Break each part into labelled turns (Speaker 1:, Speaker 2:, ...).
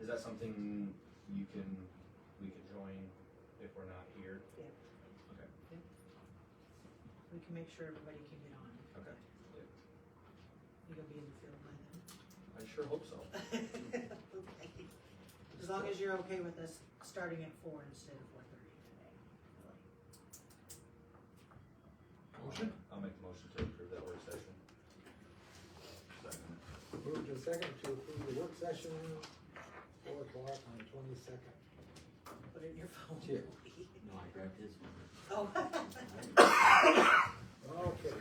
Speaker 1: Is that something you can, we could join if we're not here?
Speaker 2: We can make sure everybody can get on.
Speaker 1: Okay. Yeah.
Speaker 2: You'll be in the field by then.
Speaker 1: I sure hope so.
Speaker 2: Okay. As long as you're okay with us starting at four instead of four thirty today.
Speaker 3: Motion?
Speaker 1: I'll make a motion to approve that work session.
Speaker 3: Moved and second to approve the work session, four o'clock on the twenty-second.
Speaker 2: Put it in your phone.
Speaker 3: Here.
Speaker 4: No, I grabbed his one.
Speaker 2: Oh.
Speaker 3: Okay,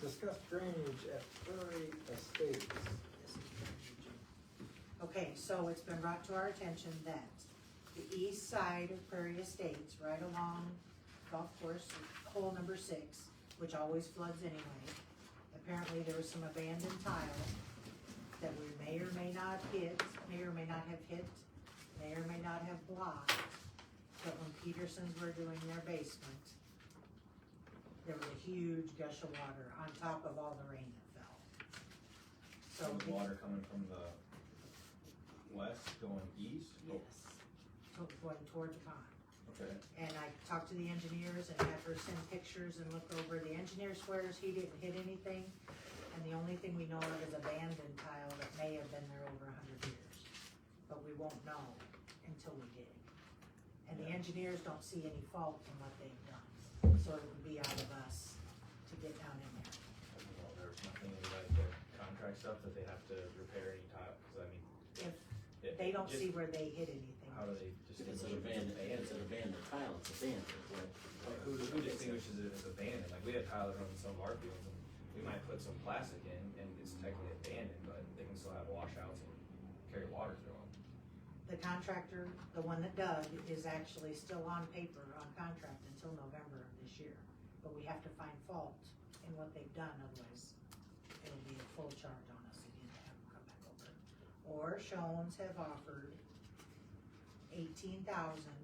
Speaker 3: discuss drainage at Prairie Estates.
Speaker 2: Okay, so it's been brought to our attention that the east side of Prairie Estates, right along golf course, hole number six, which always floods anyway, apparently there was some abandoned tile that we may or may not hit, may or may not have hit, may or may not have blocked, but when Petersons were doing their basement, there was a huge gush of water on top of all the rain that fell. So.
Speaker 1: Some
Speaker 2: it-
Speaker 1: water coming from the west going east?
Speaker 2: Yes, to- going toward the pond.
Speaker 1: Okay.
Speaker 2: And I talked to the engineers and had her send pictures and look over. The engineer swears he didn't hit anything. And the only thing we know of is abandoned tile that may have been there over a hundred years. But we won't know until we dig. And the
Speaker 1: Yeah.
Speaker 2: engineers don't see any fault in what they've done. So it would be out of us to get down in there.
Speaker 1: Well, there's nothing in like their contract stuff that they have to repair any tile, cause I mean.
Speaker 2: If
Speaker 1: it-
Speaker 2: they don't
Speaker 1: just
Speaker 2: see where they hit anything.
Speaker 1: How do they
Speaker 4: If it's
Speaker 1: distinguish?
Speaker 4: an
Speaker 1: if it's
Speaker 4: abandoned, if it's an abandoned tile, it's abandoned, right?
Speaker 1: Like, who, who distinguishes it as abandoned? Like, we have tile that runs some of our fields, and we might put some plastic in, and it's technically abandoned, but they can still have washouts and carry water through them.
Speaker 2: The contractor, the one that dug, is actually still on paper, on contract until November of this year. But we have to find fault in what they've done, otherwise it'll be a full charge on us again to have them come back over. Or Shones have offered eighteen thousand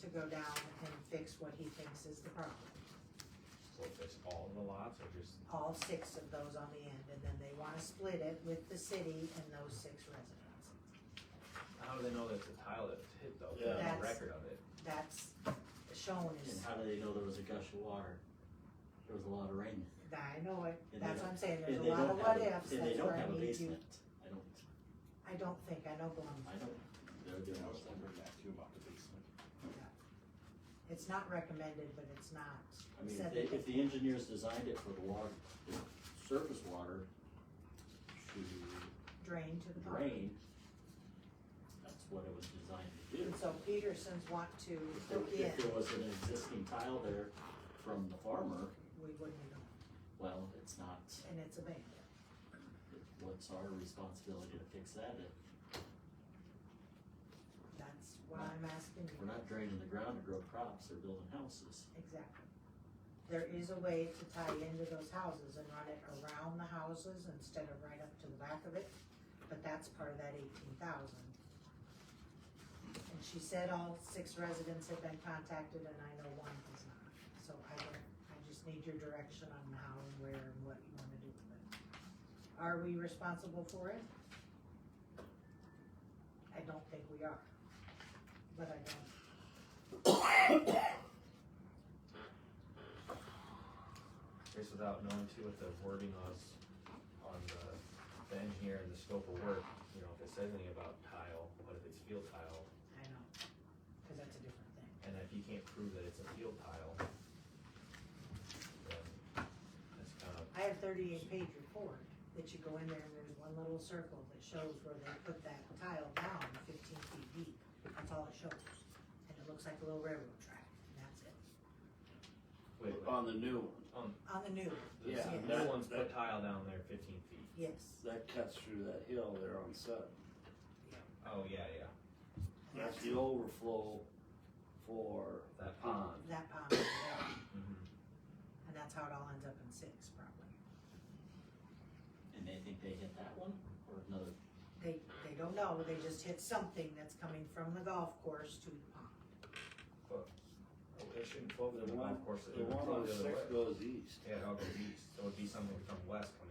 Speaker 2: to go down and fix what he thinks is the problem.
Speaker 1: So if it's all the lots, or just,
Speaker 2: All six of those on the end, and then they wanna split it with the city and those six residents.
Speaker 1: how do they know that it's a tile that's hit though? They don't
Speaker 2: Yeah.
Speaker 1: have a record of it.
Speaker 2: That's, Shones.
Speaker 4: And how do they know there was a gush of water? There was a lot of rain.
Speaker 2: I know it,
Speaker 4: And they
Speaker 2: that's what I'm saying,
Speaker 4: And
Speaker 2: there's a
Speaker 4: they
Speaker 2: lot
Speaker 4: don't
Speaker 2: of
Speaker 4: have
Speaker 2: what
Speaker 4: a-
Speaker 2: ifs,
Speaker 4: And they
Speaker 2: that's
Speaker 4: don't
Speaker 2: where
Speaker 4: have
Speaker 2: I
Speaker 4: a
Speaker 2: need you,
Speaker 4: basement. I don't,
Speaker 2: I don't think, I know Blum,
Speaker 4: I don't, they're
Speaker 5: Yeah,
Speaker 4: doing
Speaker 5: I
Speaker 4: all
Speaker 5: was
Speaker 4: that.
Speaker 5: wondering that too about the basement.
Speaker 2: it's not recommended, but it's not.
Speaker 4: I mean,
Speaker 2: said
Speaker 4: if, they-
Speaker 2: that-
Speaker 4: if the engineers designed it for the water, surface water to
Speaker 2: Drain to the pond.
Speaker 4: drain, that's what it was designed to do.
Speaker 2: And so Petersons want to
Speaker 4: If
Speaker 2: hook
Speaker 4: there,
Speaker 2: in,
Speaker 4: if there was an existing tile there from the farmer,
Speaker 2: we wouldn't know,
Speaker 4: well, it's not,
Speaker 2: and it's abandoned.
Speaker 4: what's our responsibility to fix that? If
Speaker 2: That's why I'm asking you,
Speaker 4: We're not draining the ground to grow crops or building houses.
Speaker 2: exactly. There is a way to tie into those houses and run it around the houses instead of right up to the back of it, but that's part of that eighteen thousand. And she said all six residents have been contacted and I know one has not, so I don't, I just need your direction on how and where and what you wanna do with it. Are we responsible for it? I don't think we are, but I don't.
Speaker 1: Just without knowing too what the wording was on the, the engineer and the scope of work, you know, if it says anything about tile, what if it's field tile?
Speaker 2: I know, cause that's a different thing.
Speaker 1: And if you can't prove that it's a field tile, then that's kind of,
Speaker 2: I have thirty-eight page report that you go in there and there's one little circle that shows where they put that tile down fifteen feet deep. That's all it shows. And it looks like a little railroad track and that's it.
Speaker 1: wait, wait,
Speaker 5: On the new one,
Speaker 2: On the new,
Speaker 1: the
Speaker 5: Uh, yeah,
Speaker 1: s-
Speaker 5: that-
Speaker 1: new ones put
Speaker 5: that-
Speaker 1: tile down there fifteen feet.
Speaker 2: yes.
Speaker 5: that cuts through that hill there on Sutton.
Speaker 1: Oh, yeah, yeah.
Speaker 5: That's the overflow for
Speaker 1: That
Speaker 5: pond.
Speaker 2: That pond over there.
Speaker 1: Mhm.
Speaker 2: And that's how it all ends up in six probably.
Speaker 4: And they think they hit that one or another.
Speaker 2: They, they don't know, they just hit something that's coming from the golf course to the pond.
Speaker 1: Oh, It shouldn't flow to
Speaker 5: The
Speaker 1: the
Speaker 5: one-
Speaker 1: golf course, it
Speaker 5: The
Speaker 1: would
Speaker 5: one
Speaker 1: flow
Speaker 5: on
Speaker 1: oh, the other
Speaker 5: six
Speaker 1: way.
Speaker 5: goes east.
Speaker 1: Yeah, it all goes east, so it'd be something from west